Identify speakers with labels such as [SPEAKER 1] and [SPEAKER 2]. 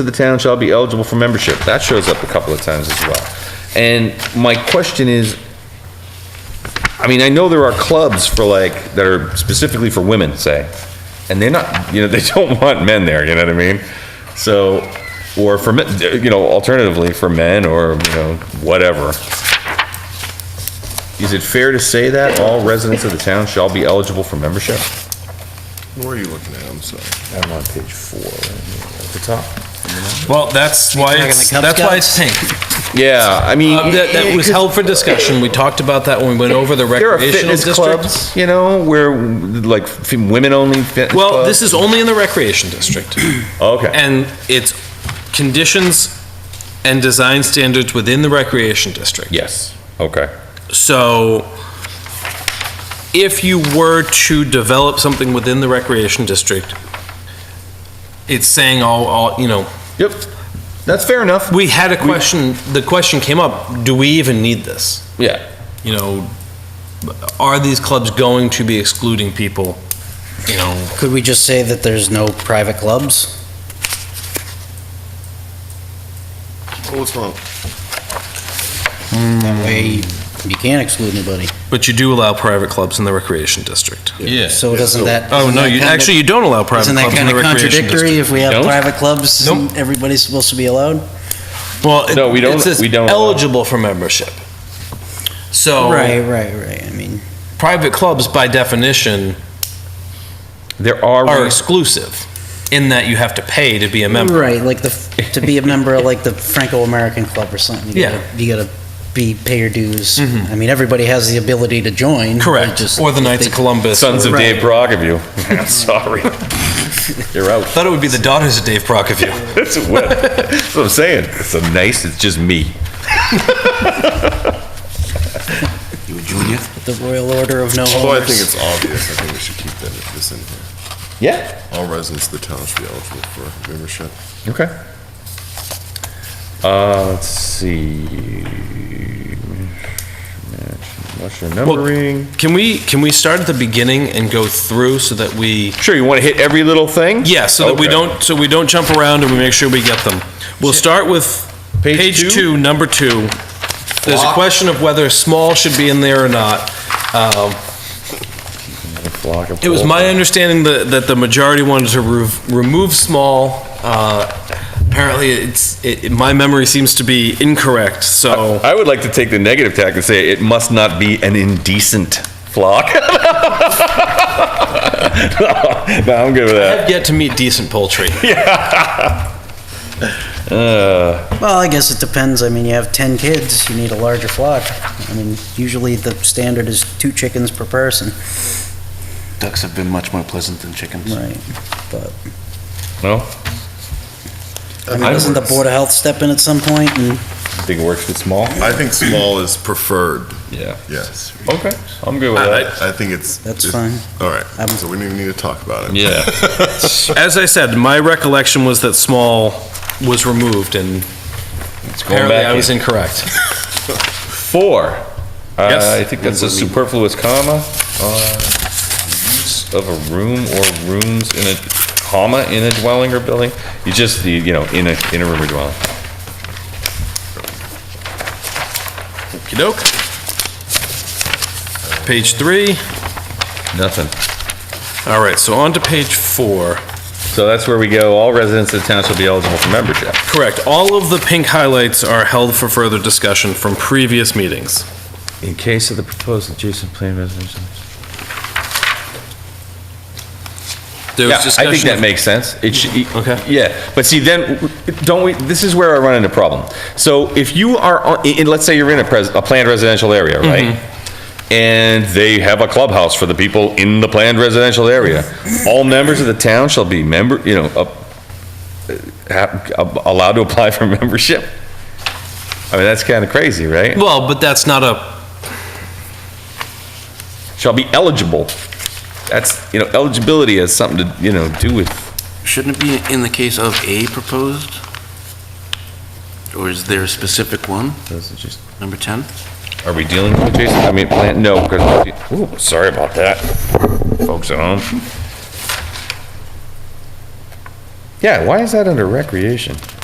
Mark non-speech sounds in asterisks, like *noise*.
[SPEAKER 1] to the town shall be eligible for membership. That shows up a couple of times as well. And my question is, I mean, I know there are clubs for like, that are specifically for women, say, and they're not, you know, *laughs* they don't want men there, you know what I mean? So, or for, men, you know, alternatively, for men or, you know, whatever. Is it fair to say that all residents of the town shall be eligible for membership?
[SPEAKER 2] Where are you looking at? I'm sorry.
[SPEAKER 1] I'm on page four, at the top.
[SPEAKER 3] Well, that's why
[SPEAKER 4] Talking
[SPEAKER 3] it's,
[SPEAKER 4] the Cub
[SPEAKER 3] that's why it's
[SPEAKER 4] Scouts?
[SPEAKER 3] pink.
[SPEAKER 1] Yeah, I mean.
[SPEAKER 3] Um, That, that was held for discussion. We talked about that when we went over the
[SPEAKER 1] There are
[SPEAKER 3] recreational
[SPEAKER 1] fitness
[SPEAKER 3] districts.
[SPEAKER 1] clubs, you know, where like f- women-only fitness
[SPEAKER 3] Well, this
[SPEAKER 1] clubs.
[SPEAKER 3] is only in the recreation district.
[SPEAKER 1] Okay,
[SPEAKER 3] And it's conditions and design standards within the recreation district.
[SPEAKER 1] yes, okay.
[SPEAKER 3] So if you were to develop something within the recreation district, it's saying all, all, you know,
[SPEAKER 1] Yep, that's fair enough.
[SPEAKER 3] we had a question, the question came up, do we even need this?
[SPEAKER 1] Yeah.
[SPEAKER 3] you know, are these clubs going to be excluding people? You know,
[SPEAKER 4] Could we just say that there's no private clubs?
[SPEAKER 2] Oh, it's not.
[SPEAKER 4] That way, you can't exclude anybody.
[SPEAKER 3] but you do allow private clubs in the recreation district.
[SPEAKER 2] Yes.
[SPEAKER 4] So doesn't that?
[SPEAKER 3] Oh,
[SPEAKER 4] doesn't
[SPEAKER 3] no,
[SPEAKER 4] that
[SPEAKER 3] you,
[SPEAKER 4] kinda-
[SPEAKER 3] actually, you don't allow private
[SPEAKER 4] Isn't that
[SPEAKER 3] clubs in
[SPEAKER 4] kind
[SPEAKER 3] the
[SPEAKER 4] of
[SPEAKER 3] recreation
[SPEAKER 4] contradictory
[SPEAKER 3] district.
[SPEAKER 4] if we have
[SPEAKER 1] Don't?
[SPEAKER 4] private clubs?
[SPEAKER 3] Nope.
[SPEAKER 4] and Everybody's supposed to be allowed?
[SPEAKER 3] Well,
[SPEAKER 1] No, we
[SPEAKER 3] it-
[SPEAKER 1] don't-
[SPEAKER 3] it says
[SPEAKER 1] we don't allow-
[SPEAKER 3] eligible for membership.
[SPEAKER 4] Right,
[SPEAKER 3] So,
[SPEAKER 4] right, right. I mean,
[SPEAKER 3] private clubs by definition
[SPEAKER 1] There are,
[SPEAKER 3] are
[SPEAKER 1] re-
[SPEAKER 3] exclusive in that you have to pay to be a member.
[SPEAKER 4] right, like the, f- to be a member of like the Franco-American Club or something. you gotta- You gotta be, pay your dues. I mean, everybody has the ability to join.
[SPEAKER 3] Mm-hmm.
[SPEAKER 4] but
[SPEAKER 3] Correct.
[SPEAKER 4] just-
[SPEAKER 3] Or the Knights of Columbus. I
[SPEAKER 1] sons of
[SPEAKER 4] Right.
[SPEAKER 1] Dave Brog of you. I'm *laughs* sorry. You're out.
[SPEAKER 3] Thought it would be the daughters of Dave Prokofiev.
[SPEAKER 1] That's what, that's what I'm saying. It's a nice, it's just me.
[SPEAKER 4] The Royal Order Oh, of No
[SPEAKER 2] Although I
[SPEAKER 4] Homers.
[SPEAKER 2] think it's obvious, I think we should keep that, this in here.
[SPEAKER 1] Yeah.
[SPEAKER 2] All residents of the town should be eligible for membership.
[SPEAKER 1] Okay. Uh, let's see. What's your
[SPEAKER 3] Well,
[SPEAKER 1] numbering?
[SPEAKER 3] Can we, can we start at the beginning and go through so that we
[SPEAKER 1] Sure, you want to hit every little thing?
[SPEAKER 3] Yeah, so that we
[SPEAKER 1] Okay.
[SPEAKER 3] don't, so we don't jump around and we make sure we get them. We'll start with
[SPEAKER 1] Page two?
[SPEAKER 3] page two, number two. There's a
[SPEAKER 1] Block.
[SPEAKER 3] question of whether small should be in there or not. Um,
[SPEAKER 1] Flock of
[SPEAKER 3] It was
[SPEAKER 1] wolves.
[SPEAKER 3] my understanding that, that the majority wanted to roof- remove small. uh, Apparently, it's, it, it- my memory seems to be incorrect, so.
[SPEAKER 1] I would like to take the negative tack and say it must not be an indecent flock. *laughs* no, I'm good with that.
[SPEAKER 3] I've yet to meet decent poultry.
[SPEAKER 1] Uh,
[SPEAKER 4] Well, I guess it depends. I mean, you have 10 kids, you need a larger flock. I mean, usually the standard is two chickens per person.
[SPEAKER 5] Ducks have been much more pleasant than chickens.
[SPEAKER 4] Right. But,
[SPEAKER 1] No,
[SPEAKER 4] I mean, doesn't the Board of Health step in at some point and
[SPEAKER 1] I think it works with small.
[SPEAKER 2] I think small is preferred,
[SPEAKER 1] Yeah.
[SPEAKER 2] yes.
[SPEAKER 1] Okay, I'm good with that.
[SPEAKER 2] I think it's.
[SPEAKER 4] That's
[SPEAKER 2] it's-
[SPEAKER 4] fine.
[SPEAKER 2] All right,
[SPEAKER 4] I'm-
[SPEAKER 2] so we don't even need to talk about it.
[SPEAKER 1] Yeah.
[SPEAKER 3] *laughs* As I said, my recollection was that small was removed and apparently
[SPEAKER 1] back
[SPEAKER 3] I was
[SPEAKER 1] in.
[SPEAKER 3] incorrect.
[SPEAKER 1] Four.
[SPEAKER 3] Yes.
[SPEAKER 1] Uh, I think that's a superfluous comma. Uh, use of a room or rooms in a comma in a dwelling or building. You just you, you know in a in a room or dwelling.
[SPEAKER 3] Okey-doke. Page three.
[SPEAKER 1] Nothing.
[SPEAKER 3] All right, so on to page four.
[SPEAKER 1] So that's where we go. All residents of the town shall be eligible for membership.
[SPEAKER 3] Correct. All of the pink highlights are held for further discussion from previous meetings.
[SPEAKER 1] In case of the proposed adjacent plan residential.
[SPEAKER 3] There was
[SPEAKER 1] Yeah, I think
[SPEAKER 3] discussion
[SPEAKER 1] that
[SPEAKER 3] of-
[SPEAKER 1] makes sense. It should,
[SPEAKER 3] Okay.
[SPEAKER 1] yeah, but see, then, don't we, this is where I run into problem. So if you are, on- in, in- let's say you're in a pres, a planned residential area, right?
[SPEAKER 3] Mm-hmm.
[SPEAKER 1] And they have a clubhouse for the people in the planned residential area. All members of the town shall be member, you know, up- uh, ha- allowed to apply for *laughs* membership? I mean, that's kind of crazy, right?
[SPEAKER 3] Well, but that's not a,
[SPEAKER 1] Shall be eligible. That's, you know, eligibility has something to, you know, do with
[SPEAKER 5] Shouldn't it be in the case of a proposed? Or is there a specific one? Number 10?
[SPEAKER 1] Are we dealing with adjacent, I mean, plan, no, because, ooh, sorry about that, folks at home. Yeah, why is that under recreation?